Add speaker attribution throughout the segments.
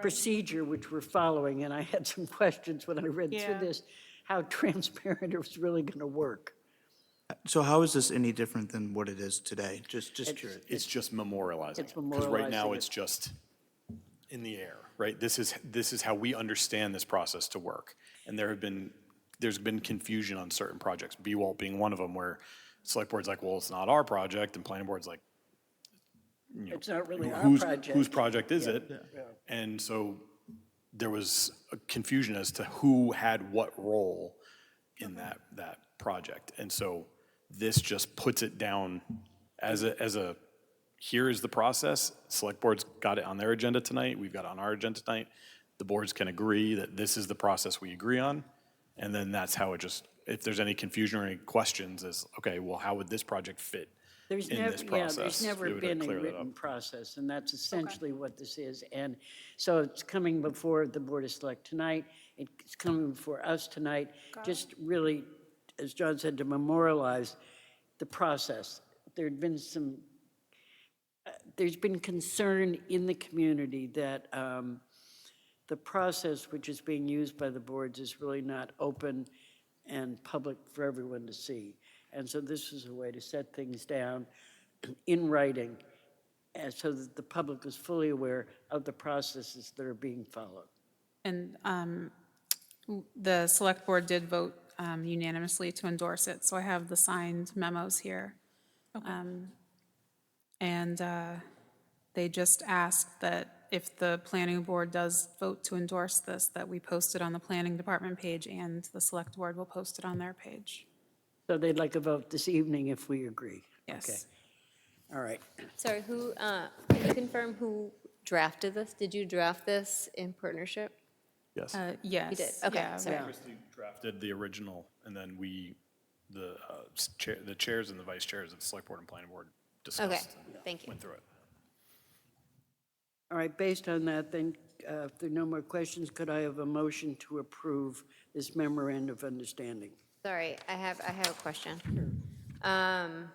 Speaker 1: procedure which we're following, and I had some questions when I read through
Speaker 2: Yeah.
Speaker 1: this, how transparent it was really going to work.
Speaker 3: So how is this any different than what it is today? Just, just curious.
Speaker 4: It's just memorializing
Speaker 1: It's
Speaker 4: it. Because right now,
Speaker 1: memorializing
Speaker 4: it's
Speaker 1: it.
Speaker 4: just in the air, right? This is, this is how we understand this process to work. And there have been, there's been confusion on certain projects, BWAL being one of them, where select board's like, well, it's not our project, and planning board's like,
Speaker 1: It's not really our
Speaker 4: whose, whose
Speaker 1: project.
Speaker 4: project is it? And so there was a confusion as to who had what role in that, that project. And so this just puts it down as a, as a, here is the process. Select board's got it on their agenda tonight, we've got it on our agenda tonight. The boards can agree that this is the process we agree on. And then that's how it just, if there's any confusion or any questions is, okay, well, how would this project fit in
Speaker 1: There's never,
Speaker 4: this
Speaker 1: yeah,
Speaker 4: process?
Speaker 1: there's never
Speaker 4: It would
Speaker 1: been a
Speaker 4: clear that up.
Speaker 1: written process, and that's essentially what this is. And so it's coming before the Board of Select tonight, it's coming before us tonight, just really, as John said, to memorialize the process. There'd been some uh, there's been concern in the community that um, the process which is being used by the boards is really not open and public for everyone to see. And so this is a way to set things down in writing and so that the public is fully aware of the processes that are being followed.
Speaker 2: And um, w- the select board did vote um, unanimously to endorse it, so I have the signed memos here. Um, And uh, they just asked that if the planning board does vote to endorse this, that we post it on the planning department page and the select board will post it on their page.
Speaker 1: So they'd like a vote this evening if we agree.
Speaker 2: Yes.
Speaker 1: All right.
Speaker 5: Sorry, who, uh, can you confirm who drafted this? Did you draft this in partnership?
Speaker 4: Yes.
Speaker 2: Uh, Yes.
Speaker 5: You did, okay,
Speaker 2: yeah,
Speaker 5: sorry.
Speaker 4: Christie drafted the original, and then we, the uh, s- chair, the chairs and the vice chairs of the select board and planning board
Speaker 5: Okay,
Speaker 4: discussed. and
Speaker 5: thank you.
Speaker 4: Went through it.
Speaker 1: All right, based on that, then, uh, if there are no more questions, could I have a motion to approve this memorandum of understanding?
Speaker 5: Sorry, I have, I have a question. Um,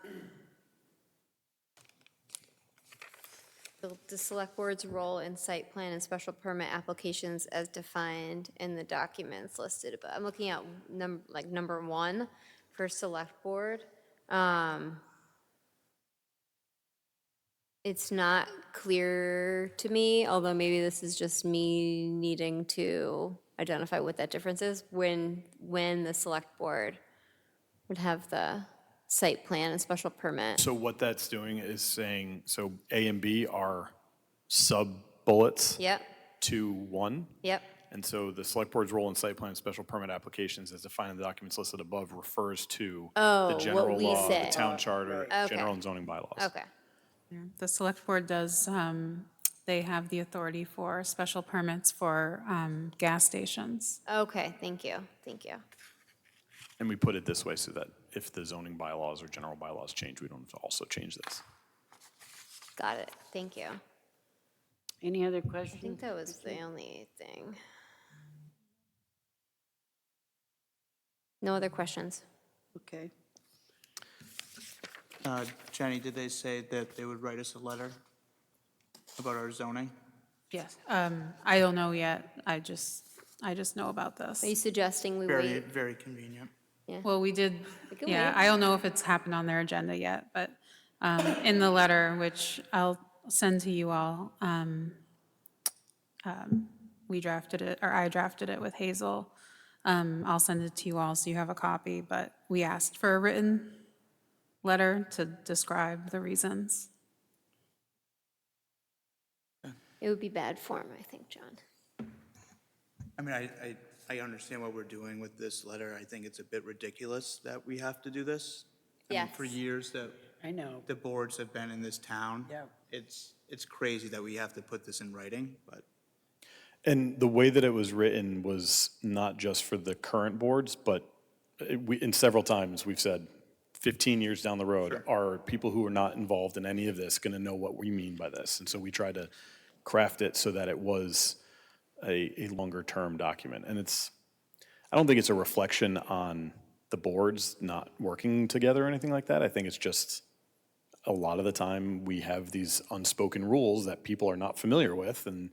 Speaker 5: The the select board's role in site plan and special permit applications as defined in the documents listed above. I'm looking at number, like, number one for select board. Um, It's not clear to me, although maybe this is just me needing to identify what that difference is, when, when the select board would have the site plan and special permit.
Speaker 4: So what that's doing is saying, so A and B are sub-bullets
Speaker 5: Yep,
Speaker 4: to one.
Speaker 5: yep,
Speaker 4: And so the select board's role in site plan and special permit applications as defined in the documents listed above refers to
Speaker 5: Oh,
Speaker 4: the
Speaker 5: what
Speaker 4: general
Speaker 5: we
Speaker 4: law, the
Speaker 5: said.
Speaker 4: town charter,
Speaker 5: Okay.
Speaker 4: general and zoning bylaws.
Speaker 5: okay.
Speaker 2: The select board does, um, they have the authority for special permits for um, gas stations.
Speaker 5: Okay, thank you, thank you.
Speaker 4: And we put it this way so that if the zoning bylaws or general bylaws change, we don't have to also change this.
Speaker 5: Got it, thank you.
Speaker 1: Any other
Speaker 5: I think
Speaker 1: questions?
Speaker 5: that was the only thing. No other questions?
Speaker 1: Okay.
Speaker 3: Uh, Jenny, did they say that they would write us a letter about our zoning?
Speaker 2: Yes. Um, I don't know yet. I just, I just know about this.
Speaker 5: Are you suggesting we
Speaker 3: Very,
Speaker 5: wait?
Speaker 3: very convenient.
Speaker 2: Well, we did,
Speaker 5: can
Speaker 2: yeah,
Speaker 5: wait.
Speaker 2: I don't know if it's happened on their agenda yet, but um, in the letter, which I'll send to you all, um, um, we drafted it, or I drafted it with Hazel. Um, I'll send it to you all so you have a copy, but we asked for a written letter to describe the reasons.
Speaker 5: It would be bad form, I think, John.
Speaker 3: I mean, I, I, I understand what we're doing with this letter. I think it's a bit ridiculous that we have to do this. I mean, For
Speaker 5: Yes.
Speaker 3: years that
Speaker 1: I know.
Speaker 3: the boards have been in this town.
Speaker 1: Yeah.
Speaker 3: It's, it's crazy that we have to put this in writing, but
Speaker 4: And the way that it was written was not just for the current boards, but it- we, in several times, we've said, 15 years down the road, are people who are not involved in any of this going to know what we mean by this? And so we tried to craft it so that it was a, a longer-term document. And it's, I don't think it's a reflection on the boards not working together or anything like that. I think it's just a lot of the time, we have these unspoken rules that people are not familiar with, and